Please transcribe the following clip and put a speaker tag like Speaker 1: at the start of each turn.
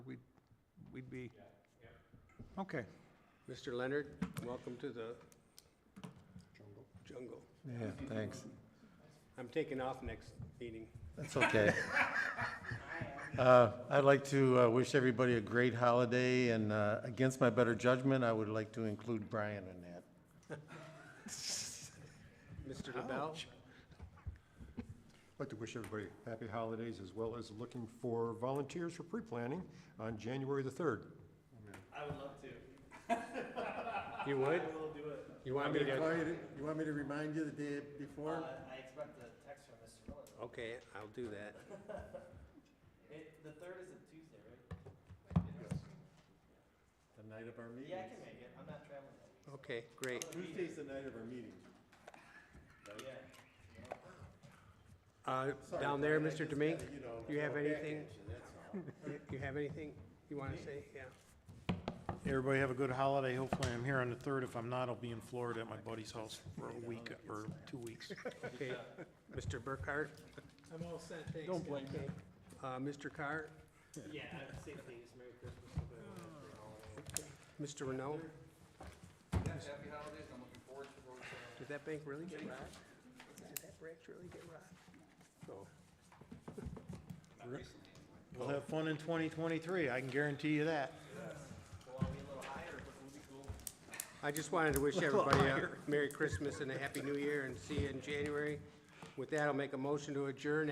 Speaker 1: the? Okay,
Speaker 2: Mr. Leonard, welcome to the jungle.
Speaker 3: Yeah, thanks.
Speaker 2: I'm taking off next meeting.
Speaker 3: That's okay. Uh, I'd like to uh, wish everybody a great holiday, and uh, against my better judgment, I would like to include Brian in that.
Speaker 2: Mr. LaBelle?
Speaker 4: I'd like to wish everybody happy holidays, as well as looking for volunteers for pre-planning on January the 3rd.
Speaker 5: I would love to.
Speaker 2: You would?
Speaker 5: We'll do it.
Speaker 2: You want me to?
Speaker 3: You want me to remind you the day before?
Speaker 5: Uh, I expect a text from Mr. Miller.
Speaker 2: Okay, I'll do that.
Speaker 5: It, the third is a Tuesday, right?
Speaker 3: The night of our
Speaker 5: Yeah, I
Speaker 3: meetings.
Speaker 5: can make it. I'm not traveling that
Speaker 2: Okay, great.
Speaker 5: week.
Speaker 3: Tuesday's the night of our meetings.
Speaker 5: Yeah.
Speaker 2: Uh,
Speaker 3: Sorry,
Speaker 2: Down there,
Speaker 3: Brian, I
Speaker 2: Mr.
Speaker 3: just
Speaker 2: Demink,
Speaker 3: gotta, you know,
Speaker 2: you have
Speaker 3: throw it back
Speaker 2: anything?
Speaker 3: at you, that's all.
Speaker 2: you- you have anything you want to say? Yeah.
Speaker 6: Everybody have a good holiday. Hopefully I'm here on the 3rd. If I'm not, I'll be in Florida at my buddy's house for a week or two weeks.
Speaker 2: Okay. Mr. Burkhart?
Speaker 1: I'm all set, thanks.
Speaker 2: Don't blame me. Mr. Carr?
Speaker 5: Yeah, I'd say please, Merry Christmas. uh,
Speaker 2: Mr. Renault?
Speaker 7: Happy holidays, I'm looking forward to those, uh,
Speaker 2: Did that bank really get robbed? Did that branch really get robbed? No.
Speaker 6: We'll have fun in 2023. I can guarantee you that.
Speaker 5: Well, are we a little higher, but we'll be cool.
Speaker 2: I just wanted to wish everybody a Merry Christmas and a Happy New Year and see you in January. With that, I'll make a motion to adjourn